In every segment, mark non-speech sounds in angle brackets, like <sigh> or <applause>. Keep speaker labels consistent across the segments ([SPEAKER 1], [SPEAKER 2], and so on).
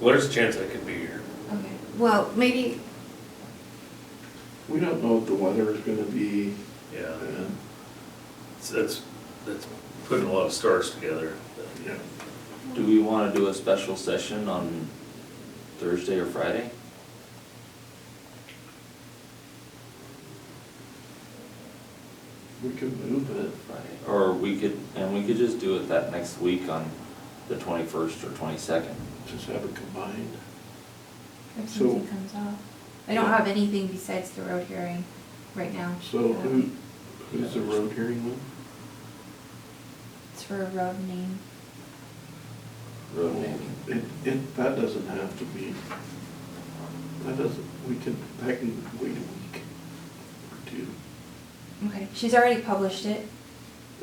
[SPEAKER 1] What is the chance I could be here?
[SPEAKER 2] Mm-hmm. Okay, well, maybe,
[SPEAKER 3] We don't know what the weather is gonna be. uh,
[SPEAKER 1] Yeah,
[SPEAKER 3] and,
[SPEAKER 1] it's- that's, that's putting a lot of stars together.
[SPEAKER 3] yeah.
[SPEAKER 4] Do we wanna do a special session on Thursday or Friday?
[SPEAKER 3] We could move it.
[SPEAKER 4] Friday. Or we could, and we could just do it that next week on the twenty-first or twenty-second.
[SPEAKER 3] Just have it combined.
[SPEAKER 2] if
[SPEAKER 3] So-
[SPEAKER 2] something comes off. I don't have anything besides the road hearing right now.
[SPEAKER 3] So who, who's the road hearing with?
[SPEAKER 2] It's for a road name.
[SPEAKER 4] Road naming.
[SPEAKER 3] It, it, that doesn't have to be, that doesn't, we can, that can wait a week or two.
[SPEAKER 2] Okay, she's already published it,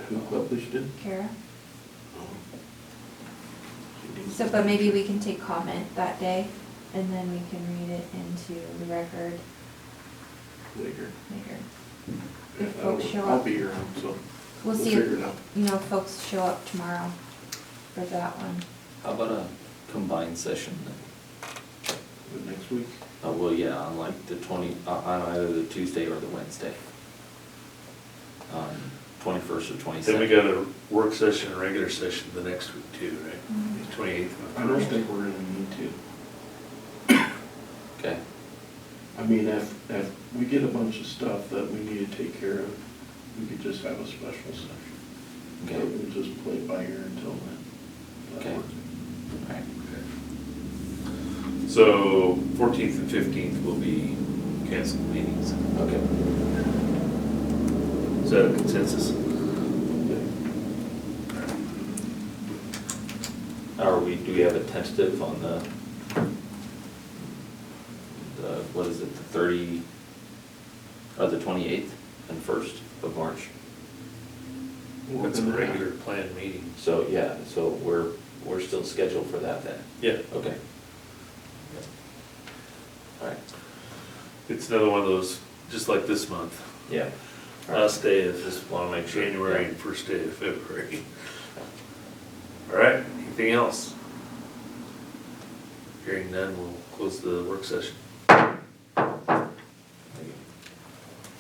[SPEAKER 3] Who published it?
[SPEAKER 2] Kara.
[SPEAKER 3] Oh. She needs
[SPEAKER 2] So,
[SPEAKER 3] to-
[SPEAKER 2] but maybe we can take comment that day and then we can read it into the record
[SPEAKER 3] Later.
[SPEAKER 2] later.
[SPEAKER 3] Yeah,
[SPEAKER 2] If
[SPEAKER 3] I'll-
[SPEAKER 2] folks show
[SPEAKER 3] I'll
[SPEAKER 2] up.
[SPEAKER 3] be around, so.
[SPEAKER 2] We'll see
[SPEAKER 3] figure it
[SPEAKER 2] if,
[SPEAKER 3] out.
[SPEAKER 2] you know, folks show up tomorrow for that one.
[SPEAKER 4] How about a combined session then?
[SPEAKER 3] But Next week,
[SPEAKER 4] Uh, well, yeah, on like the twenty, uh, on either the Tuesday or the Wednesday. Um, twenty-first or
[SPEAKER 1] Then
[SPEAKER 4] twenty-second.
[SPEAKER 1] we got a work session, and regular session the next week too,
[SPEAKER 2] Mhm.
[SPEAKER 1] right? Twenty-eighth.
[SPEAKER 3] I don't think we're gonna need to.
[SPEAKER 4] Okay,
[SPEAKER 3] I mean, if, if we get a bunch of stuff that we need to take care of, we could just have a special session.
[SPEAKER 4] okay,
[SPEAKER 3] So We'll just play it by ear until then. That
[SPEAKER 4] Okay.
[SPEAKER 3] works.
[SPEAKER 4] alright.
[SPEAKER 1] So fourteenth and fifteenth will be canceled meetings.
[SPEAKER 4] Okay.
[SPEAKER 1] Is that a consensus?
[SPEAKER 4] Are we, do we have a tentative on the, the, what is it, the thirty, or the twenty-eighth and first of March?
[SPEAKER 3] We're
[SPEAKER 1] That's a
[SPEAKER 3] gonna have-
[SPEAKER 1] regular planned meeting.
[SPEAKER 4] So, yeah, so we're, we're still scheduled for that then?
[SPEAKER 1] Yeah.
[SPEAKER 4] Okay. All right,
[SPEAKER 1] It's another one of those, just like this month,
[SPEAKER 4] yeah.
[SPEAKER 1] last day of
[SPEAKER 4] Just wanna make sure.
[SPEAKER 1] January and first day of February. <laughs> All right, anything else? Hearing none, we'll close the work session.